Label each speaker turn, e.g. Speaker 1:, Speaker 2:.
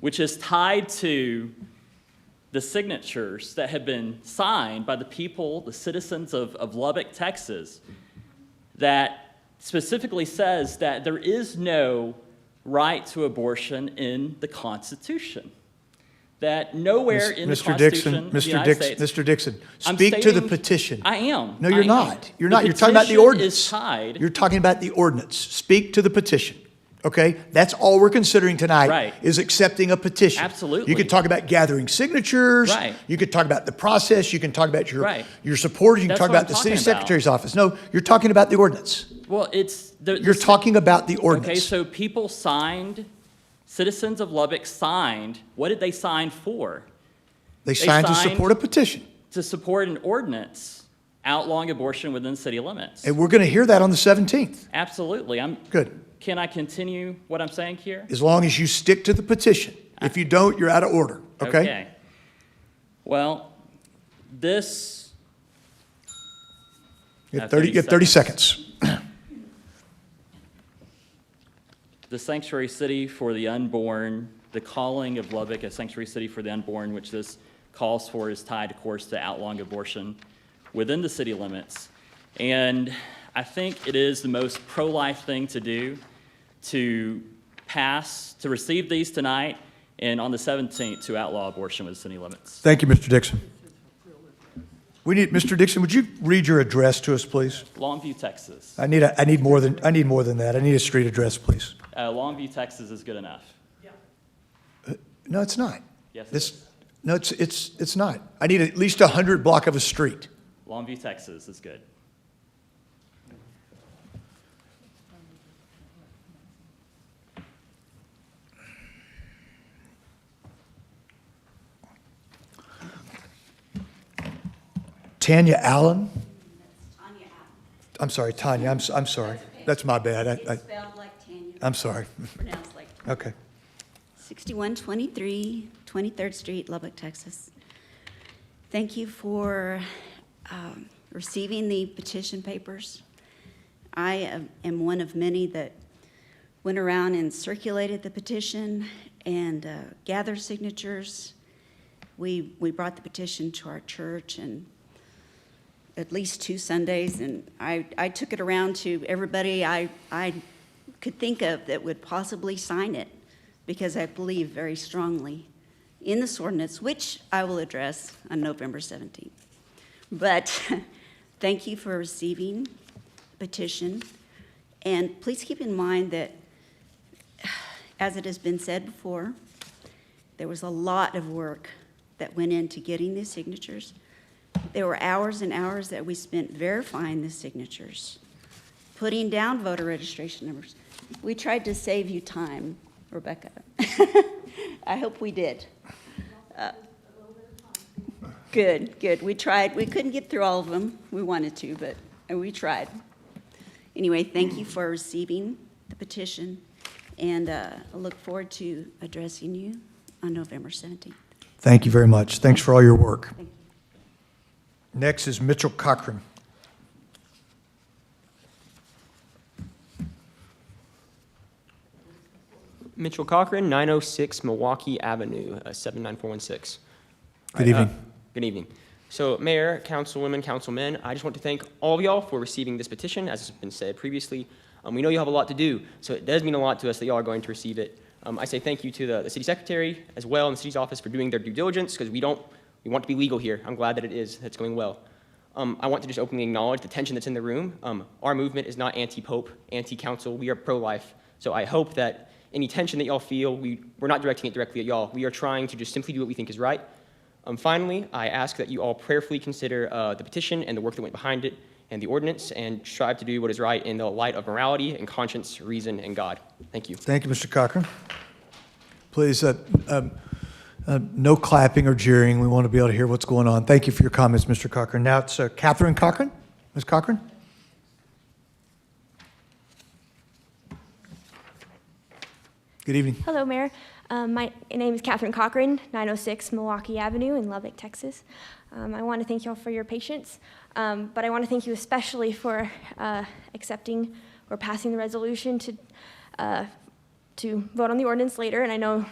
Speaker 1: which is tied to the signatures that have been signed by the people, the citizens of, of Lubbock, Texas, that specifically says that there is no right to abortion in the Constitution. That nowhere in the
Speaker 2: Mr.
Speaker 1: Constitution
Speaker 2: Dixon,
Speaker 1: of the
Speaker 2: Mr.
Speaker 1: United
Speaker 2: Dixon,
Speaker 1: States-
Speaker 2: Mr. Dixon,
Speaker 1: I'm
Speaker 2: speak to the
Speaker 1: stating-
Speaker 2: petition.
Speaker 1: I am.
Speaker 2: No, you're
Speaker 1: I am.
Speaker 2: not. You're
Speaker 1: The
Speaker 2: not. You're talking about the
Speaker 1: petition
Speaker 2: ordinance.
Speaker 1: is tied.
Speaker 2: You're talking about the ordinance. Speak to the petition. Okay? That's all we're considering tonight.
Speaker 1: Right.
Speaker 2: Is accepting a petition.
Speaker 1: Absolutely.
Speaker 2: You could talk about gathering signatures.
Speaker 1: Right.
Speaker 2: You could talk about the process. You can talk about your
Speaker 1: Right.
Speaker 2: your supporters. You can
Speaker 1: That's
Speaker 2: talk
Speaker 1: what I'm
Speaker 2: about the city
Speaker 1: talking about.
Speaker 2: secretary's office. No, you're talking about the ordinance.
Speaker 1: Well, it's. the- the
Speaker 2: You're
Speaker 1: si-
Speaker 2: talking about the
Speaker 1: Okay,
Speaker 2: ordinance.
Speaker 1: so people signed, citizens of Lubbock signed, what did they sign for?
Speaker 2: They signed to
Speaker 1: signed-
Speaker 2: support a petition.
Speaker 1: To support an ordinance outlawing abortion within city limits.
Speaker 2: And we're going to hear that on the 17th.
Speaker 1: Absolutely. I'm,
Speaker 2: Good.
Speaker 1: can I continue what I'm saying here?
Speaker 2: as long as you stick to the petition. If you don't, you're out of order, okay?
Speaker 1: Well, this,
Speaker 2: You have
Speaker 1: At
Speaker 2: 30, you have 30 seconds.
Speaker 1: the sanctuary city for the unborn, the calling of Lubbock a sanctuary city for the unborn, which this calls for, is tied, of course, to outlawing abortion within the city limits. And I think it is the most pro-life thing to do to pass, to receive these tonight, and on the 17th, to outlaw abortion within city limits.
Speaker 2: Thank you, Mr. Dixon. We need, Mr. Dixon, would you read your address to us, please?
Speaker 1: Longview, Texas.
Speaker 2: I need, a- I need more than, I need more than that. I need a street address, please.
Speaker 1: Uh, Longview, Texas is good enough.
Speaker 2: No, it's not.
Speaker 1: Yes, it
Speaker 2: This-
Speaker 1: is.
Speaker 2: No, it's, it's, it's not. I need at least 100 block of a street.
Speaker 1: Longview, Texas is good.
Speaker 2: Tanya Allen?
Speaker 3: Tanya Allen.
Speaker 2: I'm sorry, Tanya, I'm, s- I'm sorry. That's my bad. I, I,
Speaker 3: It's spelled like Tanya,
Speaker 2: I'm sorry.
Speaker 3: pronounced like.
Speaker 2: Okay.
Speaker 3: 6123 23rd Street, Lubbock, Texas. Thank you for um, receiving the petition papers. I am- am one of many that went around and circulated the petition and uh, gathered signatures. We, we brought the petition to our church and at least two Sundays, and I, I took it around to everybody I, I could think of that would possibly sign it, because I believe very strongly in this ordinance, which I will address on November 17th. But thank you for receiving the petition, and please keep in mind that, as it has been said before, there was a lot of work that went into getting these signatures. There were hours and hours that we spent verifying the signatures, putting down voter registration numbers. We tried to save you time, Rebecca. I hope we did. Uh, Good, good. We tried. We couldn't get through all of them. We wanted to, but uh, we tried. Anyway, thank you for receiving the petition, and uh, I look forward to addressing you on November 17th.
Speaker 2: Thank you very much. Thanks for all your work. Next is Mitchell Cochran.
Speaker 4: Mitchell Cochran, 906 Milwaukee Avenue, uh, 79416.
Speaker 2: Good
Speaker 4: All uh,
Speaker 2: evening.
Speaker 4: Good evening. So, Mayor, Councilwomen, Councilmen, I just want to thank all of y'all for receiving this petition, as has been said previously. Um, We know you have a lot to do, so it does mean a lot to us that y'all are going to receive it. Um, I say thank you to the the city secretary as well and the city's office for doing their due diligence, because we don't, we want to be legal here. I'm glad that it is, that's going well. Um, I want to just openly acknowledge the tension that's in the room. Um, Our movement is not anti-pope, anti-council, we are pro-life. So I hope that any tension that y'all feel, we, we're not directing it directly at y'all. We are trying to just simply do what we think is right, um, finally, I ask that you all prayerfully consider uh, the petition and the work that went behind it and the ordinance and strive to do what is right in the light of morality and conscience, reason, and God. Thank you.
Speaker 2: Thank you, Mr. Cochran. Please, uh, um, uh, no clapping or jeering. We want to be able to hear what's going on. Thank you for your comments, Mr. Cochran. Now it's uh, Catherine Cochran. Ms. Cochran? Good evening.
Speaker 5: Hello, Mayor. Um, my name is Catherine Cochran, 906 Milwaukee Avenue in Lubbock, Texas. Um, I want to thank you all for your patience, um, but I want to thank you especially for uh, accepting or passing the resolution to uh, to vote on the ordinance later. And I know